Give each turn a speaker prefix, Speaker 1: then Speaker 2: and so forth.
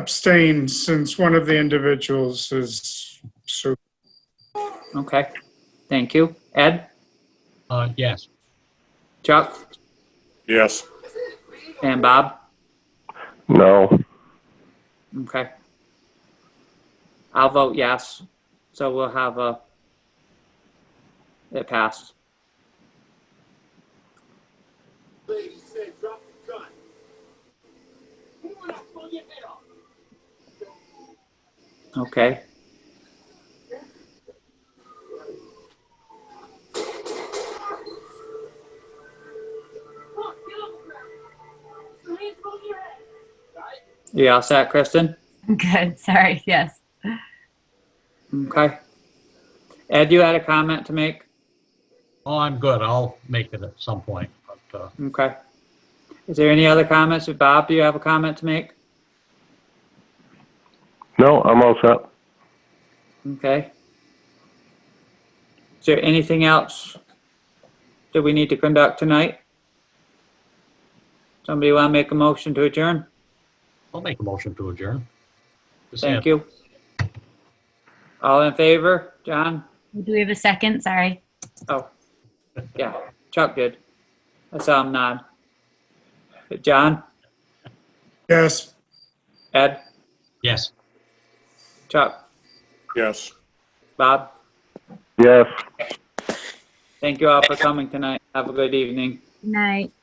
Speaker 1: abstain since one of the individuals is, so,
Speaker 2: Okay, thank you. Ed,
Speaker 3: Uh, yes.
Speaker 2: Chuck,
Speaker 4: Yes.
Speaker 2: and Bob?
Speaker 5: No.
Speaker 2: Okay. I'll vote yes, so we'll have a, it passed.
Speaker 6: Lady said, drop the gun. We're not pulling your head off.
Speaker 2: Okay.
Speaker 6: Look, get on the ground. Your hands above your head. Right?
Speaker 2: You all set, Kristen?
Speaker 7: Good, sorry, yes.
Speaker 2: Okay. Ed, you had a comment to make?
Speaker 3: Oh, I'm good. I'll make it at some point. But, uh,
Speaker 2: Okay. Is there any other comments? Bob, do you have a comment to make?
Speaker 5: No, I'm all set.
Speaker 2: Okay. Is there anything else that we need to conduct tonight? Somebody want to make a motion to adjourn?
Speaker 3: I'll make a motion to adjourn. Just
Speaker 2: Thank
Speaker 3: hand-
Speaker 2: you. All in favor? John?
Speaker 7: Do we have a second? Sorry.
Speaker 2: Oh, yeah, Chuck did. I saw him nod. John,
Speaker 1: yes.
Speaker 2: Ed,
Speaker 3: Yes.
Speaker 2: Chuck,
Speaker 4: Yes.
Speaker 2: Bob,
Speaker 5: Yes.
Speaker 2: thank you all for coming tonight. Have a good evening.
Speaker 7: Good night.